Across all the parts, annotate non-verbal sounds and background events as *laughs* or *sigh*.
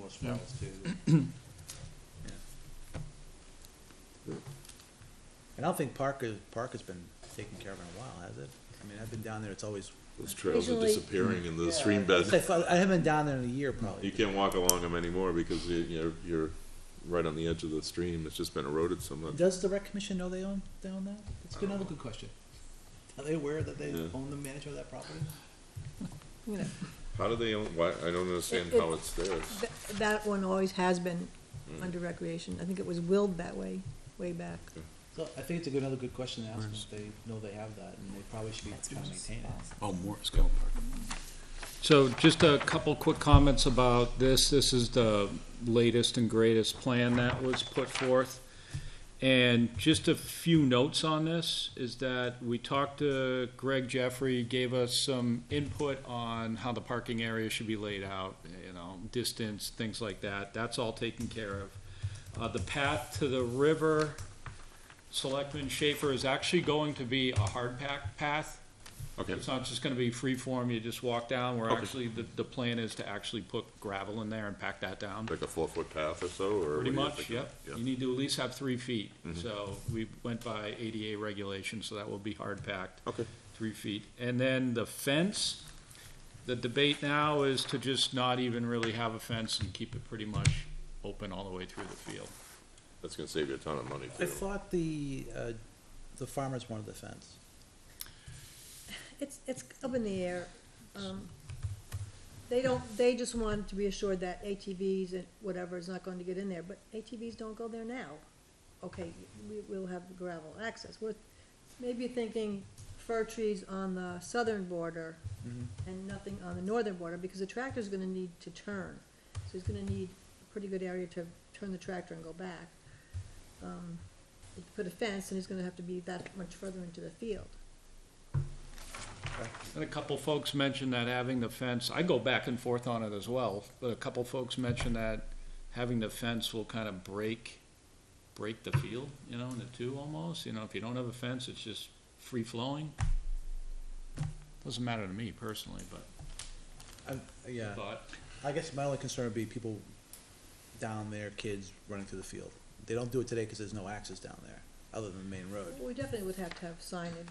those files too. And I don't think Park is, Park has been taken care of in a while, has it? I mean, I've been down there, it's always, Those trails are Usually- disappearing in the stream I bed. *laughs* haven't been down there in a year You probably. can't walk along them anymore because you- you're, you're right on the edge of the stream. It's just been eroded so much. Does the rec commission know they own, they own that? That's good- another good question. Are they aware that they Yeah. own the manager of that property? How do they own, why, I don't understand It- how it's theirs. Th- That one always has been under recreation. I think it was willed that way, way back. So I think it's a good, another good question to ask them, if they know they have that, and they probably should be trying to maintain it. Oh, Morris Golf Park. So just a couple quick comments about this. This is the latest and greatest plan that was put forth. And just a few notes on this is that we talked to Greg Jeffrey, gave us some input on how the parking area should be laid out, you know, distance, things like that. That's all taken care of. Uh, the path to the river, Selectman Schaefer is actually going to be a hard pack path. Okay, It's not just gonna be free form, you just walk down, we're Okay. actually, the, the plan is to actually put gravel in there and pack that down. like a four-foot path or so, or? Pretty what do much, you yep. think? You need to at least have three feet. Mm-hmm. So we went by ADA regulations, so that will be hard packed, Okay, three feet. And then the fence, the debate now is to just not even really have a fence and keep it pretty much open all the way through the field. that's gonna save you a ton of money I too. thought the, uh, the farmers wanted the fence. It's, it's up in the air. Um, They don't, they just want to be assured that ATVs and whatever is not going to get in there, but ATVs don't go there now. Okay, we, we'll have gravel access. We're maybe thinking fir trees on the southern border and nothing on the northern border, because the tractor's gonna need to turn. So he's gonna need a pretty good area to turn the tractor and go back. Um, if you Put a fence, and he's gonna have to be that much further into the field. And a couple folks mentioned that having the fence, I go back and forth on it as well, but a couple folks mentioned that having the fence will kind of break, break the field, you know, into two almost, you know, if you don't have a fence, it's just free flowing. Doesn't matter to me personally, but I, yeah, thought, I guess my only concern would be people down there, kids running through the field. They don't do it today because there's no access down there, other than the main road. We definitely would have to have signage.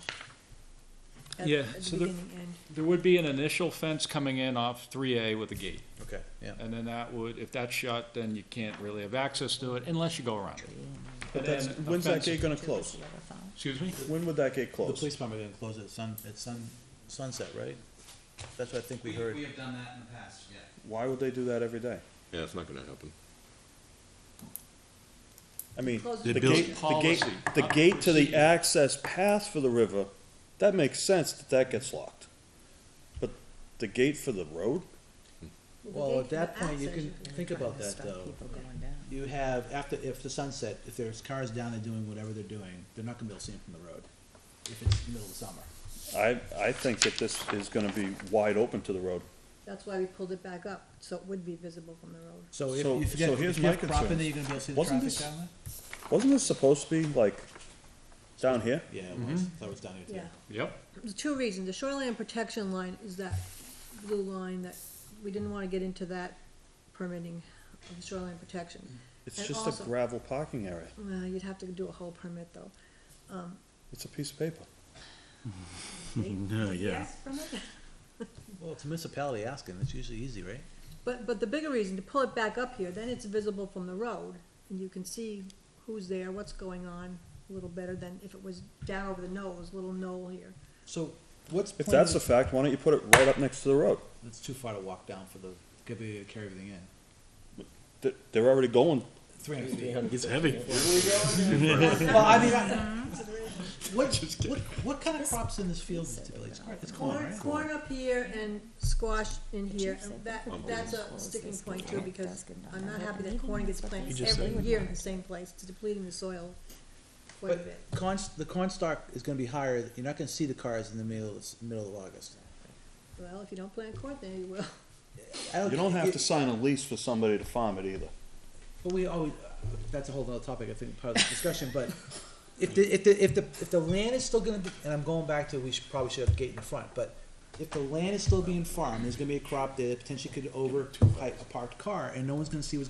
at- Yeah, At the so there- beginning end. there would be an initial fence coming in off three A with a gate. Okay, yeah. And then that would, if that's shut, then you can't really have access to it unless you go around it. But And that's, then a when's that fence- gate gonna close? Excuse me? When would that gate The close? police department gonna close at sun, at sun, sunset, right? That's what I think we We, heard. we have done that in the past, yeah. Why would they do that every day? Yeah, it's not gonna happen. I mean, Close the it. gate, the gate, Policy, the not gate to the procedure. access path for the river, that makes sense that that gets locked. But the gate for the road? The Well, gate at for that the point, you access, can think about that though. You have, after, if the sunset, if there's cars down there doing whatever they're doing, they're not gonna be able to see them from the road. If it's the middle of the summer. I, I think that this is gonna be wide open to the road. That's why we pulled it back up, so it would be visible from the road. So if, So- if so you get, here's if you have my crop in concern. there, you're gonna be able to see the Wasn't traffic this- down there? Wasn't this supposed to be like down here? Yeah, it was, that was down here Yeah. too. Yep. There's two reasons. The shoreline protection line is that blue line that, we didn't wanna get into that permitting of the shoreline protection. It's And just also- a gravel parking area. Mm. Well, you'd have to do a whole permit though. It's a piece of paper. *laughs* Yeah, yeah. Well, it's a municipality asking, it's usually easy, right? But, but the bigger reason, to pull it back up here, then it's visible from the road, and you can see who's there, what's going on, a little better than if it was down over the nose, little knoll here. So what's If point that's a of- fact, why don't you put it right up next to the road? It's too far to walk down for the, could be, carry everything in. They're, they're already going Three hundred feet. It's heavy. Well, I mean, I- what, what, what kind of crops in this field typically? It's corn- It's corn, Corn, Oh, right? corn up here and squash in The here, chief and said that, that that's corn a was sticking this point good too, crop, because that's good I'm not crop. happy that Maybe corn gets that's what planted they every said. year in the same place, it's depleting the soil quite a But bit. corn, the corn stalk is gonna be higher, you're not gonna see the cars in the middle, of- middle of August. Well, if you don't plant corn, then you will. I You don't have it- to sign a lease for somebody to farm it either. But we always, that's a whole other topic, I think, part of the discussion, but if the, if the, if the, if the land is still gonna be, and I'm going back to, we should, probably should have a gate in the front, but if the land is still being farmed, there's gonna be a crop there that potentially could over pipe a parked car, and no one's gonna see what's